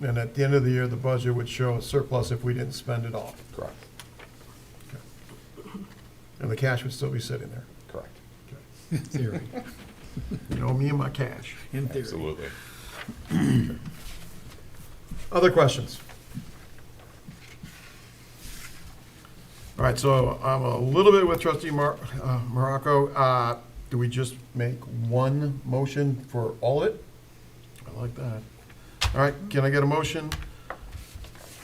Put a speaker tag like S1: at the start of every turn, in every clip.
S1: And at the end of the year, the budget would show a surplus if we didn't spend it all.
S2: Correct,
S1: And the cash would still be sitting there.
S2: correct.
S3: theory,
S1: You know, me and my cash.
S3: in theory.
S2: Absolutely.
S1: Other questions? All right, so I'm a little bit with trustee Mar- uh, Morocco. Uh, Do we just make one motion for all of it? I like that. All right, can I get a motion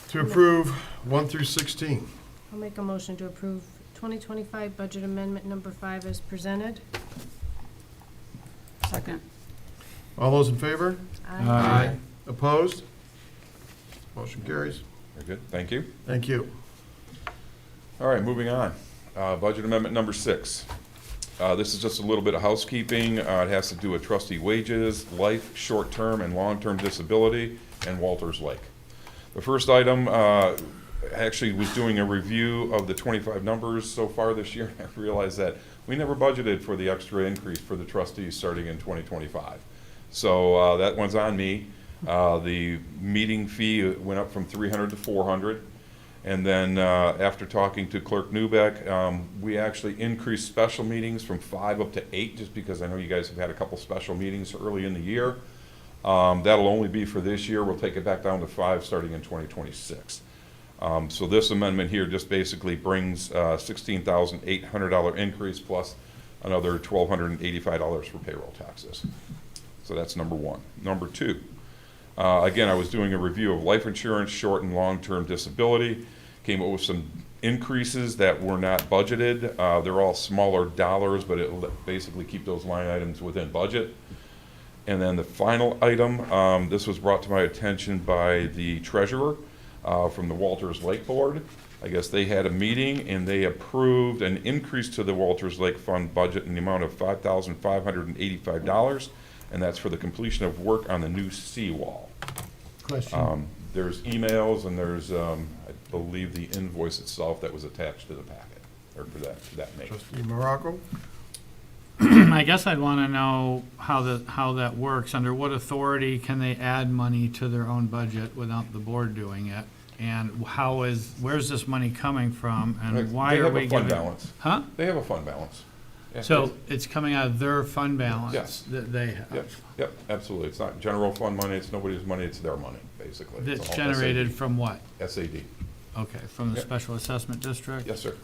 S1: to approve 1 through 16?
S4: I'll make a motion to approve 2025 budget amendment number five as presented.
S5: Second.
S1: All those in favor?
S4: Uh,
S1: Uh.
S3: Aye.
S1: Opposed? Motion carries.
S2: Very good, thank you.
S1: Thank you.
S2: All right, moving on. Uh, Budget Amendment Number Six. Uh, This is just a little bit of housekeeping. Uh, It has to do with trustee wages, life, short-term and long-term disability, and Walters Lake. The first item, uh, actually was doing a review of the 25 numbers so far this year. I realized that we never budgeted for the extra increase for the trustees starting in 2025. So uh, that one's on me. Uh, The meeting fee went up from 300 to 400. And then, uh, after talking to Clerk Newbeck, um, we actually increased special meetings from five up to eight, just because I know you guys have had a couple special meetings early in the year. Um, that'll only be for this year. We'll take it back down to five starting in twenty twenty-six. Um, so this amendment here just basically brings, uh, sixteen thousand eight hundred dollar increase plus another twelve hundred and eighty-five dollars for payroll taxes. So that's number one. Number two, uh, Again, I was doing a review of life insurance, short and long-term disability, came up with some increases that were not budgeted. Uh, They're all smaller dollars, but it'll basically keep those line items within budget. And then the final item, um, this was brought to my attention by the treasurer uh, from the Walters Lake Board. I guess they had a meeting and they approved an increase to the Walters Lake Fund budget in the amount of five thousand five hundred and eighty-five dollars, and that's for the completion of work on the new seawall.
S3: Question,
S1: Uh,
S2: Um, There's emails and there's, um, I believe, the invoice itself that was attached to the packet, or to that, to that make.
S1: Trustee Morocco?
S6: I guess I'd want to know how the, how that works. Under what authority can they add money to their own budget without the board doing it? And how is, where's this money coming from and why are we
S2: They have a fund
S6: giving?
S2: balance.
S6: Huh?
S2: They have a fund balance. Yeah,
S6: So it's coming out of their fund
S2: Yes.
S6: balance that they
S2: Yep,
S6: have?
S2: yep, absolutely. It's not general fund money, it's nobody's money, it's their money, basically. It's
S6: That's
S2: all
S6: generated from what?
S2: SAD,
S6: Okay, from the
S2: Yep.
S6: special assessment district?
S2: yes, sir.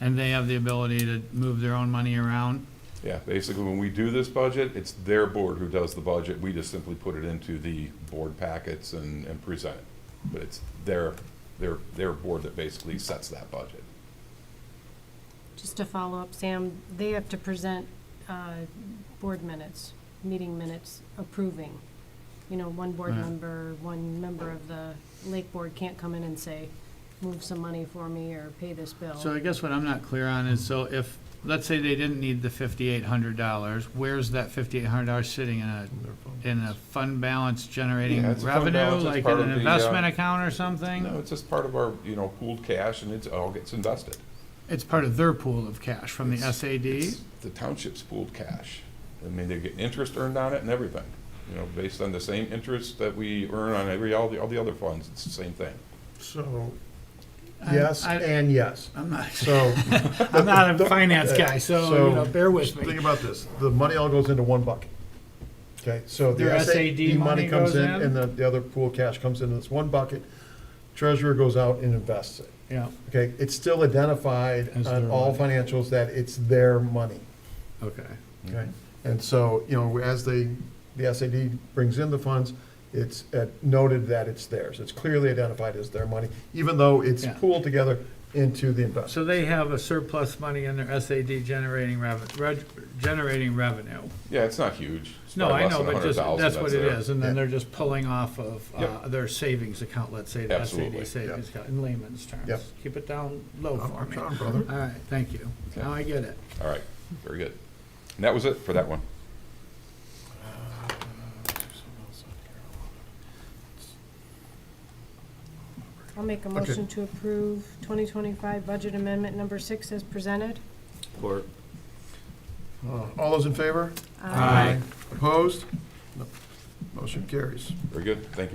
S6: And they have the ability to move their own money around?
S2: Yeah, basically, when we do this budget, it's their board who does the budget. We just simply put it into the board packets and, and present it. But it's their, their, their board that basically sets that budget.
S4: Just to follow up, Sam, they have to present uh, board minutes, meeting minutes approving. You know, one board
S6: Right.
S4: member, one member of the Lake Board can't come in and say, move some money for me or pay this bill.
S6: So I guess what I'm not clear on is, so if, let's say they didn't need the fifty-eight hundred dollars, where's that fifty-eight hundred dollars sitting in a, in a fund balance generating
S2: Yeah, it's a fund
S6: revenue?
S2: balance, it's
S6: Like
S2: part
S6: in an
S2: of the, uh,
S6: investment account or something?
S2: No, it's just part of our, you know, pooled cash and it's, all gets invested.
S6: It's part of their pool of cash from the
S2: It's-
S6: SAD?
S2: it's The township's pooled cash. I mean, they get interest earned on it and everything, you know, based on the same interest that we earn on every, all the, all the other funds, it's the same thing.
S1: So,
S6: I-
S1: yes
S6: I-
S1: and yes.
S6: I'm not,
S1: So,
S6: I'm not a finance guy,
S1: So-
S6: so, you know, bear with
S1: think
S6: me.
S1: about this, the money all goes into one bucket. Okay, so the
S6: Their
S1: SAD money
S6: SAD money
S1: comes
S6: goes
S1: in,
S6: in?
S1: and the, the other pool cash comes into this one bucket. Treasurer goes out and invests it,
S6: Yeah,
S1: okay? It's still identified
S6: As
S1: on
S6: their
S1: all financials that it's their money,
S6: okay.
S1: okay? And so, you know, as they, the SAD brings in the funds, it's uh, noted that it's theirs. It's clearly identified as their money, even though it's
S6: Yeah.
S1: pooled together into the investment.
S6: So they have a surplus money in their SAD generating revenue, generating revenue.
S2: Yeah, it's not huge. It's
S6: No,
S2: probably
S6: I
S2: less
S6: know,
S2: than
S6: but just,
S2: 100,000
S6: that's what it
S2: there.
S6: is, and
S1: Yeah.
S6: then they're just pulling off of uh,
S2: Yep.
S6: their savings account, let's say, the
S2: Absolutely.
S6: SAD savings account, in layman's
S1: Yep.
S6: terms. Keep it down low
S1: I'm-
S6: for
S1: I'm
S6: me.
S1: trying,
S6: All
S1: brother.
S6: right, thank you.
S2: Okay.
S6: Now I get it.
S2: All right, very good. And that was it for that one.
S4: I'll make a motion to approve 2025 budget amendment number six as presented.
S1: Uh, All those in favor?
S4: Aye.
S1: Opposed? No. Motion carries.
S2: Very good, thank you